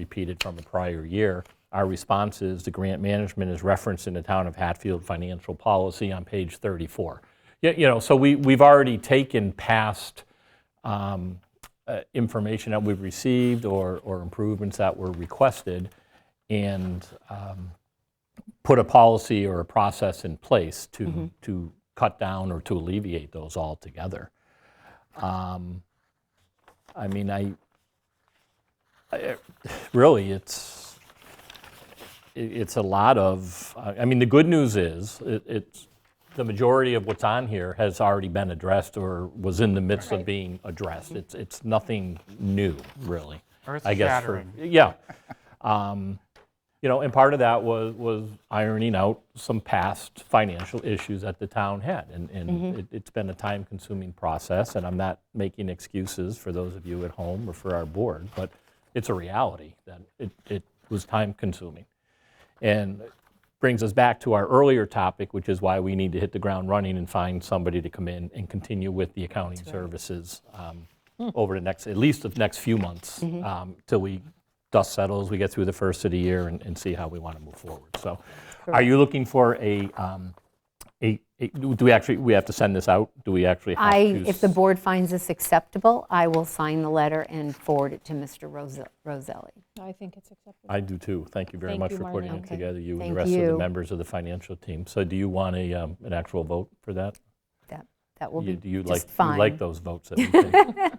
repeated from the prior year. Our response is the grant management is referenced in the town of Hatfield financial policy on page 34. Yeah, You know, so we, we've already taken past um, uh, information that we've received or, or improvements that were requested and um, put a policy or a process in place Mm-hmm. to, to cut down or to alleviate those altogether. Um, I mean, I, I- really, it's, it- it's a lot of, I I mean, the good news is, it- it's, the majority of what's on here has already been addressed or was in the midst of Right. being addressed. It's, it's nothing new, really. Mm-hmm. Earth I guess for- shattering. Yeah. Um, You know, and part of that was, was ironing out some past financial issues that the town had. And, and it- it's been a time-consuming process, and I'm not making excuses for those of you at home or for our board, but it's a reality that it, it was time-consuming. And brings us back to our earlier topic, which is why we need to hit the ground running and find somebody to come in and continue with the accounting services um, Hmm. over the next, at least the next few months, Mm-hmm. um, till we dust settles, we get through the first of the year and and see how we want to move forward. So are you looking for a, um, a, a- do we actually, we have to send this out? Do we actually have I, to? if the board finds this acceptable, I will sign the letter and forward it to Mr. Rose- Roselli. I think it's acceptable. I do too. Thank you very Thank much you, for putting Marlene. it Okay. together, you and the Thank rest of the you. members of the financial team. So do you want a, um, an actual vote for that? That, that will You- be do you like, just you like fine. those votes that we take?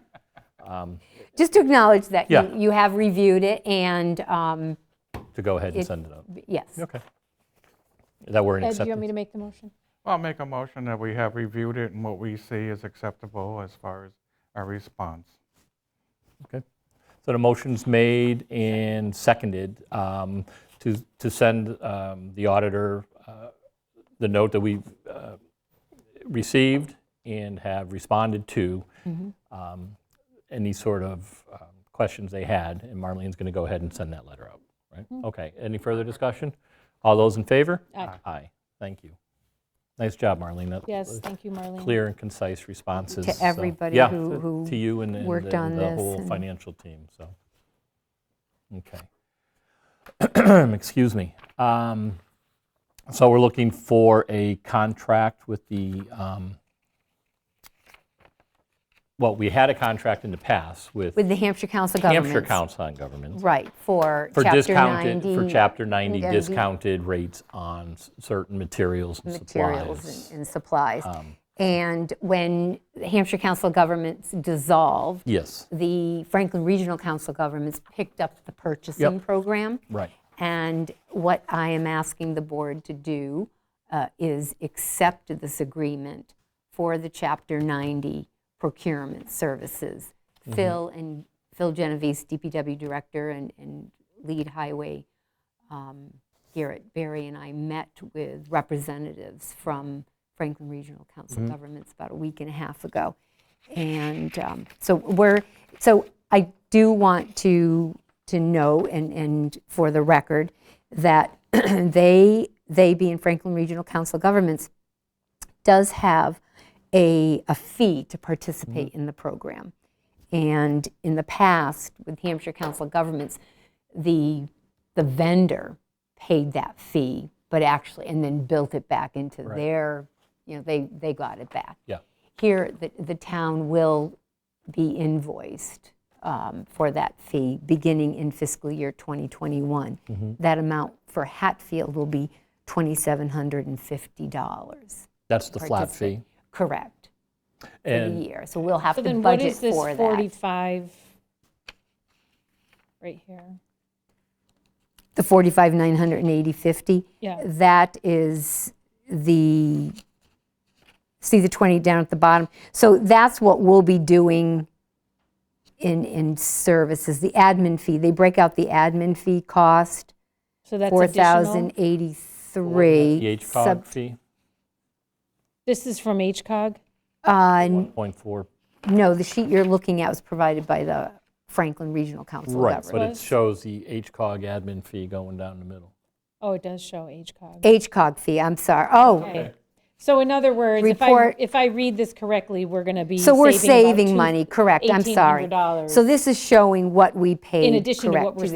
Just to acknowledge that Yeah. you, you have reviewed it and, um, to go ahead and It- send it up? yes. Okay. That we're in Ed, do you want me acceptance? to make the motion? I'll make a motion that we have reviewed it and what we see is acceptable as far as our response. So the motion's made and seconded um, to, to send um, the auditor uh, the note that we've uh, received and have responded to, Mm-hmm. um, any sort of um, questions they had, and Marlene's going to go ahead and send that letter out, right? Mm-hmm. Okay, any further discussion? All those in favor? Ah, Aye. Aye, thank you. Nice job, Marlene. That- Yes, thank you, Marlene. clear and concise responses. To so- everybody yeah, who- to- who To you and the- and worked the on the this whole and- financial team, so. Okay. Excuse me. Um, So we're looking for a contract with the, um, well, we had a contract in the past with With the Hampshire Council of Governments. Hampshire Council on Government Right, for for Chapter discounted, 90. for Chapter 90 90. discounted rates on s- certain materials and materials supplies. Um, and- and supplies. And when the Hampshire Council of Governments dissolved, Yes, the Franklin Regional Council of Governments picked up the purchasing program. right. And what I am asking the board to do uh, is accept this agreement for the Chapter 90 procurement services. Phil and, Phil Genovese, DPW Director, and and lead highway um, Garrett Berry and I met with representatives from Franklin Regional Council of Governments about a week and a half ago. And um, so we're, so I do want to, to know and, and for the record that they, they being Franklin Regional Council of Governments, does have a, a fee to participate in the program. And in the past, with Hampshire Council of Governments, the, the vendor paid that fee, but actually, and then built it back into their, you know, they, they got it back. Yeah. Here, the, the town will be invoiced um, for that fee beginning in fiscal year 2021. Mm-hmm. That amount for Hatfield will be $2,750. That's the flat participate- fee. Correct, for the And year. So we'll have So to then what budget is this for that. 45? Right here. The 45, 980, 50? Yeah. That is the, see the 20 down at the bottom? So that's what we'll be doing in, in services, the admin fee. They break out the admin fee cost, So that's additional? 4,083. the sub- HCOG fee, This is from HCOG? uh, 1.4. No, the sheet you're looking at was provided by the Franklin Regional Council of Right, Governments. but it Was- shows the HCOG admin fee going down the middle. Oh, it does show HCOG. HCOG fee, I'm sorry. Oh, Okay. So in other words, if I, Report- if I read this correctly, we're going to be so we're about two- saving money, correct, I'm sorry. $1,800 So this is showing what we paid, addition to what correct, to we're the